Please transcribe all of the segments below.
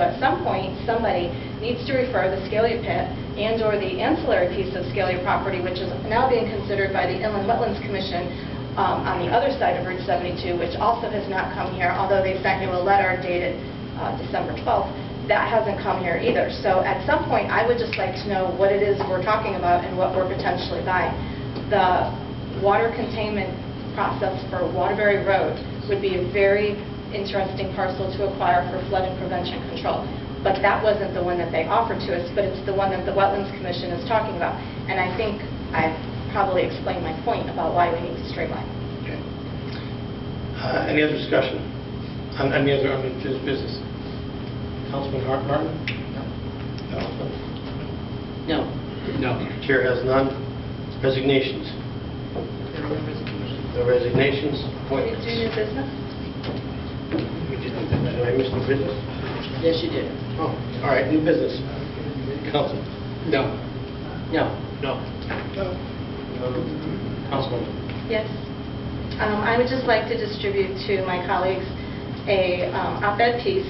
At some point, somebody needs to refer the Scalia pit and/or the ancillary piece of Scalia property, which is now being considered by the Inland Wetlands Commission um, on the other side of Route 72, which also has not come here, although they sent you a letter dated uh, December 12th. That hasn't come here either. So at some point, I would just like to know what it is we're talking about and what we're potentially buying. The water containment process for Waterbury Road would be a very interesting parcel to acquire for flood and prevention control. But that wasn't the one that they offered to us, but it's the one that the Wetlands Commission is talking about. And I think I've probably explained my point about why we need to streamline. Okay. Uh, Any other discussion on any other unfinished business? Councilman Hart- Martin? No. No. No. Chair has none. Resignations? No resignations. We Appointments? do new business? We did do that. Did I miss new business? Yes, you did. Oh, all right, new business. Council? No. No. No. Councilman? Yes. Um, I would just like to distribute to my colleagues a um, op-ed piece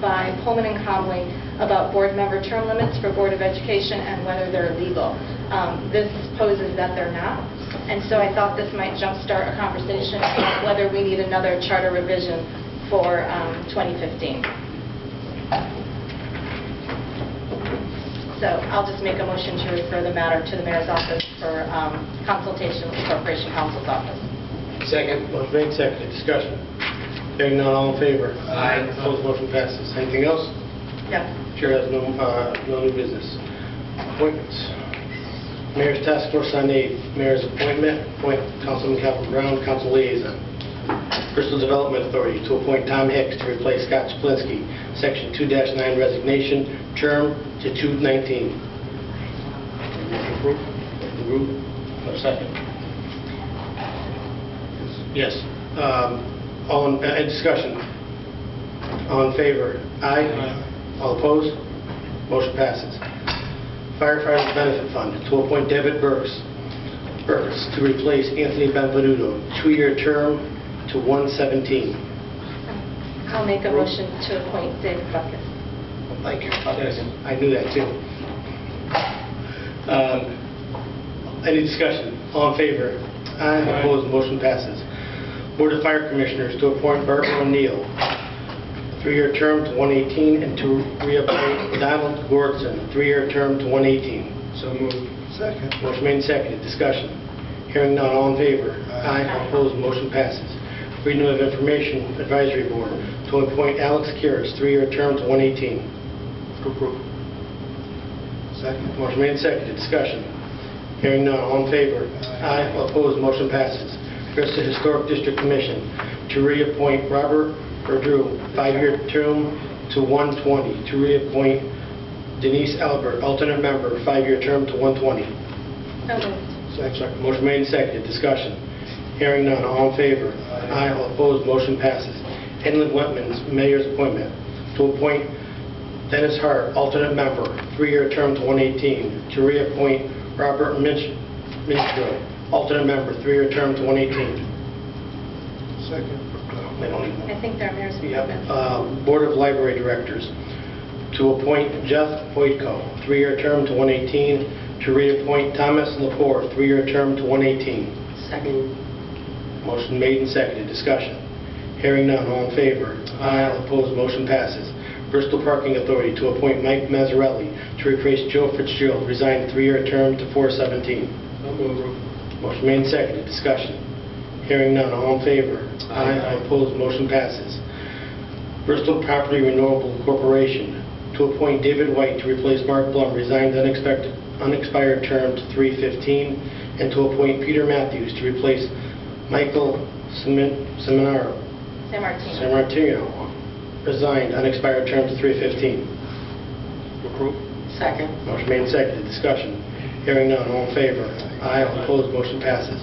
by Pullman and Comley about board member term limits for Board of Education and whether they're legal. Um, This poses that they're not, and so I thought this might jumpstart a conversation about whether we need another charter revision for um, 2015. So I'll just make a motion to refer the matter to the mayor's office for um, consultation with the Corporation Counsel's office. Second. Motion made, seconded. Discussion? Hearing none, all in favor? Aye. Opposed, motion passes. Anything else? Yes. Chair has no, uh, no new business. Appointments. Mayor's Task Force on Aid, Mayor's appointment, appoint Councilman Calvin Brown, Council Liaison. Personal Development Authority to appoint Tom Hicks to replace Scott Chaplinsky, Section 2-9 resignation, term to 2/19. Motion approved. Approve. A second. Yes. Um, All in, uh, discussion. All in favor? Aye. All opposed? Motion passes. Firefighter Benefit Fund, to appoint David Burks, Burks to replace Anthony Benvenuto, two-year term to 117. I'll make a motion to appoint David Buckus. Thank you. I knew that, too. Um, Any discussion? All in favor? Aye. Opposed? Motion passes. Board of Fire Commissioners to appoint Bert O'Neill, three-year term to 118, and to reappoint Donald Gordon, three-year term to 118. So moved. Second. Motion made and seconded. Discussion. Hearing none. All in favor? Aye. Opposed? Motion passes. Freedom of Information Advisory Board to appoint Alex Kiris, three-year term to 118. Approve. Second. Motion made and seconded, discussion. Hearing none, all in favor? Aye. All Opposed, motion passes. Request the Historic District Commission to reappoint Robert Verdrew, five-year term to 120, to reappoint Denise Albert, alternate member, five-year term to 120. So moved. Second. Motion made and seconded, discussion. Hearing none, all in favor? Aye. All Opposed, motion passes. Inland Wetlands Mayor's Appointment, to appoint Dennis Hart, alternate member, three-year term to 118, to reappoint Robert Mitch- Mitchell, alternate member, three-year term to 118. Second. They don't even- I think they're mayor's Yep. appointments. Uh, Board of Library Directors, to appoint Jeff Voitko, three-year term to 118, to reappoint Thomas Lepore, three-year term to 118. Second. Motion made and seconded, discussion. Hearing none, all in favor? Aye. All opposed, motion passes. Bristol Parking Authority to appoint Mike Mazzarelli to replace Joe Fitzgerald, resigned three-year term to 417. So moved. Motion made and seconded, discussion. Hearing none, all in favor? Aye. All opposed, motion passes. Bristol Property Renewable Corporation to appoint David White to replace Mark Blum, resigned unexpected, unexpired term to 315, and to appoint Peter Matthews to replace Michael Semin- Seminaro, San Martino. Sammartino, resigned unexpired term to 315. Second. Motion made and seconded, discussion. Hearing none, all in favor? Aye, all opposed, motion passes.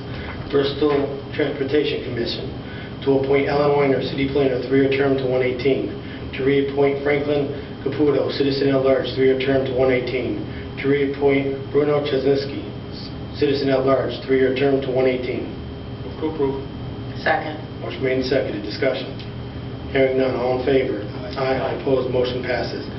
Bristol Transportation Commission to appoint Ellen Weiner, city planner, three-year term to 118. To reappoint Franklin Caputo, citizen at large, three-year term to 118. To reappoint Bruno Chesniski, citizen at large, three-year term to 118. Approve. Second. Motion made and seconded, discussion. Hearing none, all in favor? Aye. Opposed, motion passes.